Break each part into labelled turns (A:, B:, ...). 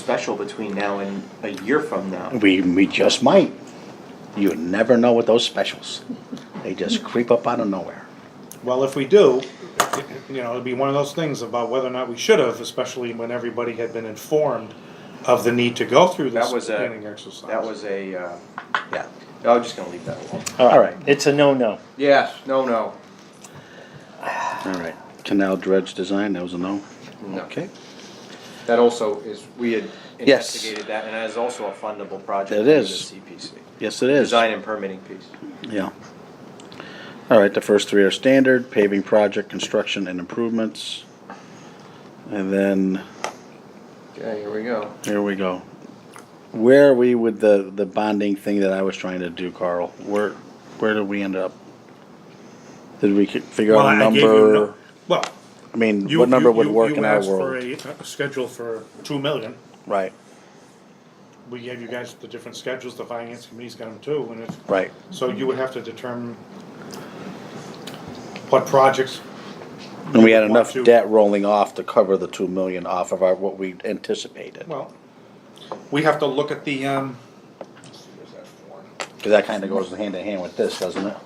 A: special between now and a year from now.
B: We, we just might. You never know with those specials. They just creep up out of nowhere.
C: Well, if we do, you know, it'd be one of those things about whether or not we should have, especially when everybody had been informed of the need to go through this
A: That was a-
C: planning exercise.
A: That was a, uh,
B: Yeah.
A: I'm just gonna leave that alone.
B: All right,
D: It's a no-no.
A: Yeah, no, no,
B: all right. Canal dredge design, that was a no?
A: no.
B: Okay.
A: That also is, we had
B: Yes.
A: investigated that, and that is also a fundable project.
B: It
A: under the
B: is.
A: CPC.
B: Yes, it is.
A: Design and permitting piece.
B: Yeah. All right, the first three are standard, paving project, construction and improvements. And then,
A: Okay, here we go.
B: here we go. Where are we with the, the bonding thing that I was trying to do, Carl? Where, where did we end up? Did we figure
C: Well,
B: out a
C: I gave you
B: number?
C: no- Well,
B: I mean,
C: you,
B: what number
C: you,
B: would
C: you,
B: work
C: you
B: in our
C: asked for
B: world?
C: a, a schedule for two million.
B: Right,
C: We gave you guys the different schedules, the finance committee's got them too, and it's,
B: right.
C: so you would have to determine what projects,
B: And we had
C: One,
B: enough
C: two.
B: debt rolling off to cover the two million off of our, what we anticipated.
C: well, we have to look at the, um,
B: Cause that kinda goes hand in hand with this, doesn't it?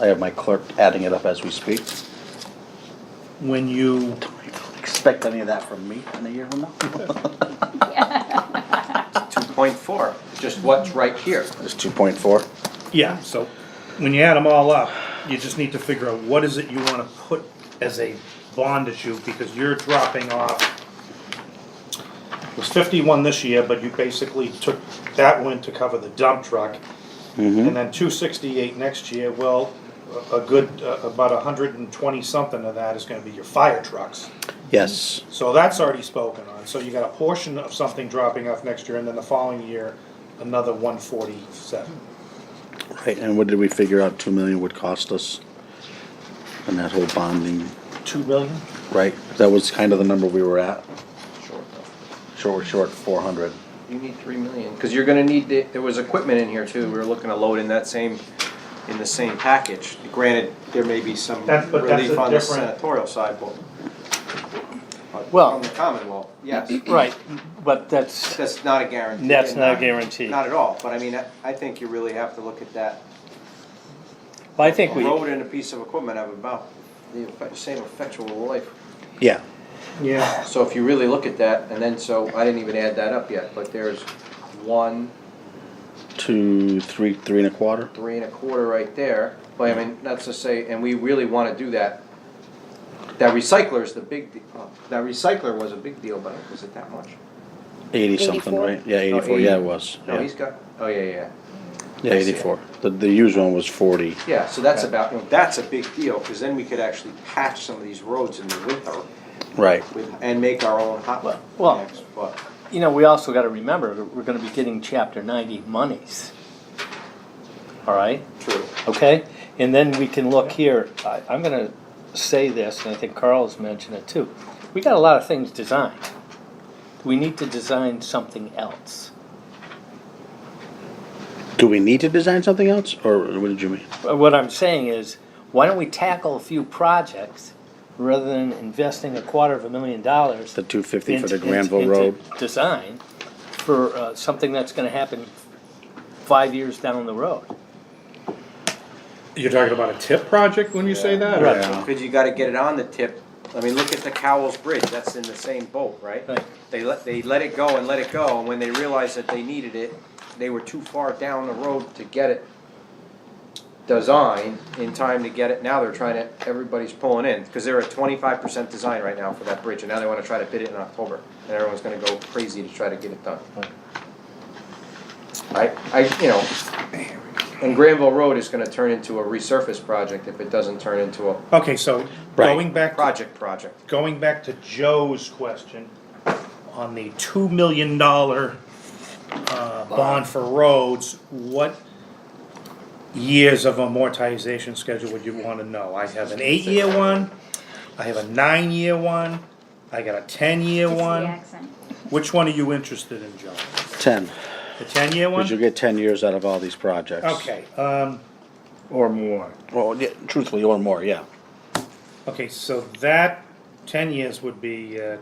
B: I have my clerk adding it up as we speak.
C: when you,
B: Expect any of that from me in a year from now?
A: Two point four, just what's right here.
B: It's two point four.
C: yeah, so when you add them all up, you just need to figure out what is it you wanna put as a bond issue, because you're dropping off. It was fifty-one this year, but you basically took that one to cover the dump truck. And then two sixty-eight next year, well, a a good, uh, about a hundred and twenty something of that is gonna be your fire trucks.
B: Yes,
C: So that's already spoken on, so you got a portion of something dropping off next year, and then the following year, another one forty-seven.
B: right, and what did we figure out two million would cost us? And that whole bonding,
C: Two million?
B: right, that was kind of the number we were at,
A: Sure. though.
B: short, we're short four hundred.
A: You need three million, cause you're gonna need, the- there was equipment in here too, we were looking to load in that same, in the same package. Granted, there may be some
C: That's- but that's
A: relief
C: a
A: on the
C: different-
A: senatorial side, but. but
D: Well-
A: From the Commonwealth, yes.
D: Right, but that's,
A: That's not a guarantee.
D: that's not a guarantee.
A: Not at all, but I mean, I- I think you really have to look at that.
D: I think
A: A
D: we,
A: road and a piece of equipment have about the effe- same effectual life.
B: Yeah,
C: Yeah.
A: So if you really look at that, and then, so, I didn't even add that up yet, but there's one,
B: two, three, three and a quarter,
A: three and a quarter right there. But I mean, that's to say, and we really wanna do that. That recycler is the big, de- oh, that recycler was a big deal, but was it that much?
B: eighty something,
E: 84?
B: right? Yeah,
A: No,
B: eighty-four, yeah, it was,
A: No,
B: yeah,
A: he's got, oh, yeah, yeah,
B: yeah, eighty-four, the, the used one was forty.
A: yeah, so that's about, you know, that's a big deal, cause then we could actually patch some of these roads in the winter.
B: Right,
A: with- and make our own hot
D: Well-
A: mix, but
D: you know, we also gotta remember, that we're gonna be getting chapter ninety monies. All right,
A: true.
D: okay? And then we can look here, I, I'm gonna say this, and I think Carl's mentioned it too. We got a lot of things designed. We need to design something else.
B: do we need to design something else, or what did you mean?
D: But What I'm saying is, why don't we tackle a few projects rather than investing a quarter of a million dollars?
B: The two fifty for
D: into-
B: the
D: into-
B: Granville
D: into
B: Road,
D: Design for uh, something that's gonna happen five years down the road.
C: You're talking about a tip project when you say that? or-
D: Right.
B: uh,
A: Cause you gotta get it on the tip, I mean, look at the Cowles Bridge, that's in the same boat, right?
D: Right.
A: They let, they let it go and let it go, and when they realized that they needed it, they were too far down the road to get it designed in time to get it, now they're trying to, everybody's pulling in, cause they're at twenty-five percent design right now for that bridge, and now they wanna try to bid it in October, and everyone's gonna go crazy to try to get it done. I, I, you know, and Granville Road is gonna turn into a resurface project if it doesn't turn into a
C: Okay, so
B: Right.
C: going back, to-
A: project project.
C: going back to Joe's question on the two million dollar uh, bond for roads, what years of amortization schedule would you want to know? I have an eight-year one, I have a nine-year one, I got a ten-year
E: It's the
C: one.
E: accent.
C: Which one are you interested in, Joe?
B: ten,
C: The ten-year
B: because you
C: one?
B: get ten years out of all these projects.
C: Okay, um,
D: Or more.
B: Well, yeah, truthfully, or more, yeah.
C: Okay, so that ten years would be uh,